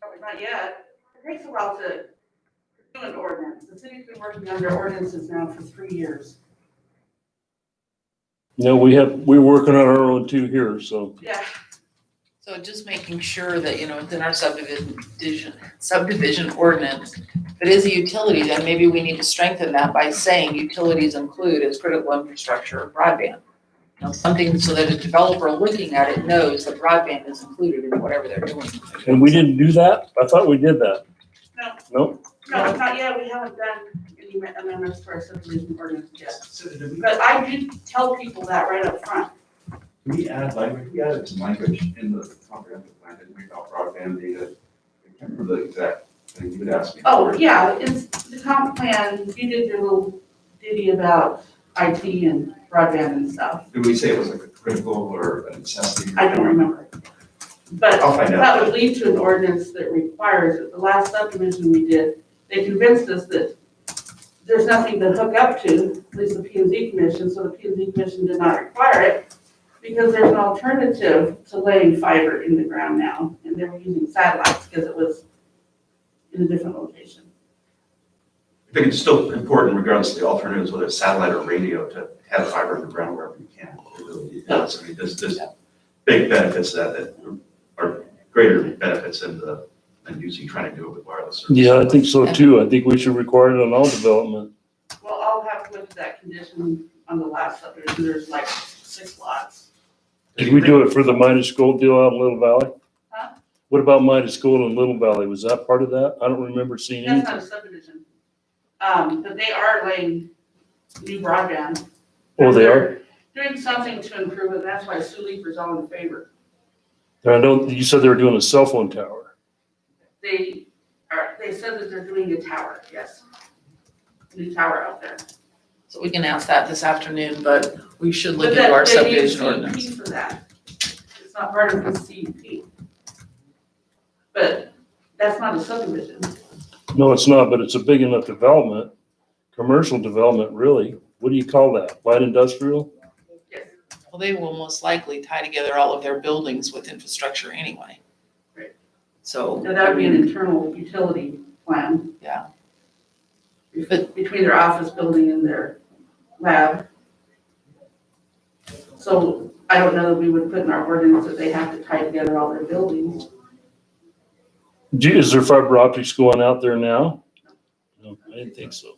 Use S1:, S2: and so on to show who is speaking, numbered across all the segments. S1: Probably Not yet. It takes a while to do an ordinance. The city's been working under ordinances now for three years.
S2: No, we have, we're working on our own too here, so.
S1: Yeah,
S3: So just making sure that, you know, within our subdivision, subdivision ordinance, if it is a utility, then maybe we need to strengthen that by saying utilities include as critical infrastructure of broadband. You know, something so that a developer looking at it knows that broadband is included in whatever they're doing.
S2: And we didn't do that? I thought we did that.
S1: no,
S2: Nope.
S1: no, not yet. We haven't done any amendments to our subdivision ordinance yet.
S4: So did we,
S1: But I did tell people that right up front.
S4: did we add language, we added some language in the comprehensive plan, didn't we, about broadband data? I can't remember the exact thing you would ask me.
S1: Oh,
S4: for.
S1: yeah, it's the comp plan. You did your little ditty about IT and broadband and stuff.
S4: Did we say it was like a critical or a necessity?
S1: I don't remember. But
S4: I'll find
S1: That
S4: out.
S1: would lead to an ordinance that requires, it. the last subdivision we did, they convinced us that there's nothing to hook up to, at least the P and Z commission, so the P and Z commission did not require it because there's an alternative to laying fiber in the ground now, and they were using satellites because it was in a different location.
S4: I think it's still important regardless of the alternatives, whether it's satellite or radio, to have fiber in the ground wherever you can. It really is. I mean, there's, there's big benefits to that that are greater benefits than the, than using, trying to do it with wireless. service.
S2: Yeah, I think so too. I think we should require it on all development.
S1: Well, I'll have to look at that condition on the last subdivision, there's like six lots.
S2: Did we do it for the Midas Gold deal out in Little Valley?
S1: Huh?
S2: What about Midas Gold in Little Valley? Was that part of that? I don't remember seeing
S1: That's
S2: anything.
S1: not a subdivision. Um, but they are laying new broadband
S2: Oh, they are?
S1: They're Doing something to improve it, that's why Sue Leaper's all in favor.
S2: I know, you said they were doing a cell phone tower.
S1: They are, they said that they're doing a tower, yes. New tower out there.
S3: So we can ask that this afternoon, but we should
S1: But
S3: look
S1: that-
S3: into our
S1: they need a
S3: subdivision
S1: CUP
S3: ordinance.
S1: For that. It's not part of the CUP. But that's not a subdivision.
S2: No, it's not, but it's a big enough development, commercial development, really. What do you call that? Light industrial?
S1: Yes.
S3: Well, they will most likely tie together all of their buildings with infrastructure anyway.
S1: Right.
S3: So.
S1: So that would be an internal utility plan.
S3: Yeah.
S1: Bef- Between their office building and their lab. So I don't know that we would put in our ordinance that they have to tie together all their buildings.
S2: Do, is there fiber optics going out there now? No, I didn't think so.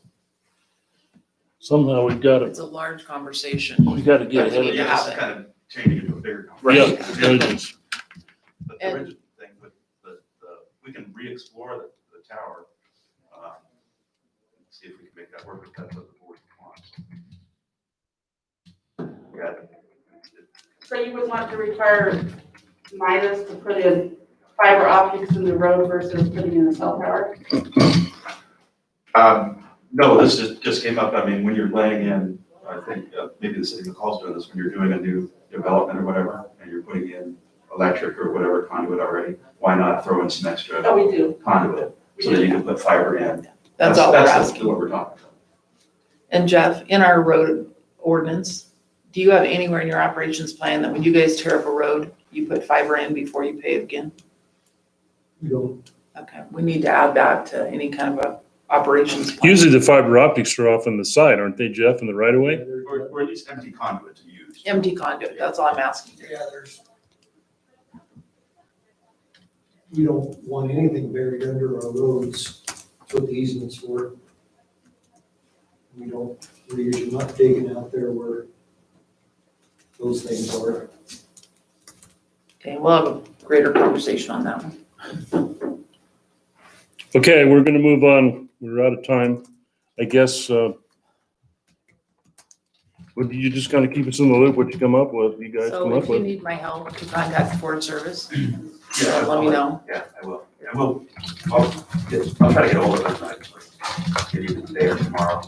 S2: Somehow we've got to,
S3: It's a large conversation.
S2: we've got to get
S4: Yeah,
S2: ahead of
S4: this
S2: this.
S4: is kind of changing into a bigger
S2: Right.
S4: conversation.
S2: It is.
S4: But the
S3: And-
S4: original thing with the, the, we can re-explore the, the tower. um, and See if we can make that work if that's what the board wants. Yeah,
S1: So you would want to require Midas to put in fiber optics in the road versus putting in a cell tower?
S4: Um, no, this just, just came up, I mean, when you're laying in, I think, uh, maybe the city of McCall's doing this, when you're doing a new development or whatever, and you're putting in electric or whatever conduit already, why not throw in some extra
S1: Oh, we do.
S4: conduit,
S1: We
S4: so that
S1: do.
S4: you can put fiber in?
S3: That's all we're
S4: That's
S3: asking.
S4: what we're talking about.
S3: And Jeff, in our road ordinance, do you have anywhere in your operations plan that when you guys tear up a road, you put fiber in before you pave again? Okay, we need to add that to any kind of a operations plan.
S2: Usually the fiber optics are off on the side, aren't they, Jeff, in the right of way?
S4: Or, or at least empty conduit to use.
S3: Empty conduit, that's all I'm asking.
S5: Yeah, there's. You don't want anything buried under our roads, that's what the easements were. We don't, we're usually not digging out there where those things are.
S3: Okay, we'll have a greater conversation on that one.
S2: Okay, we're gonna move on. We're out of time. I guess, uh, would you just kind of keep us in the loop what you come up with, you guys come
S3: So
S2: up
S3: if you
S2: with?
S3: need my help to contact Ford Service,
S4: Yeah,
S3: let me know.
S4: Yeah, I will, I will, I'll, get- I'll try to get hold of it, actually, give you today or tomorrow,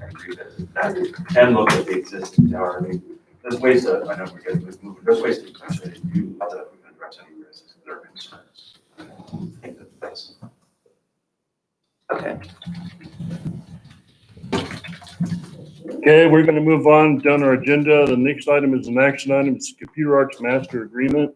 S4: I agree that, that, and look at the existing tower, I mean, there's ways to, I know we're getting, we're moving, there's ways to potentially do, that we can address any risks that are concerns. I think that that's-
S3: Okay.
S2: Okay, we're gonna move on down our agenda. The next item is an action item. It's Computer Arts Master Agreement.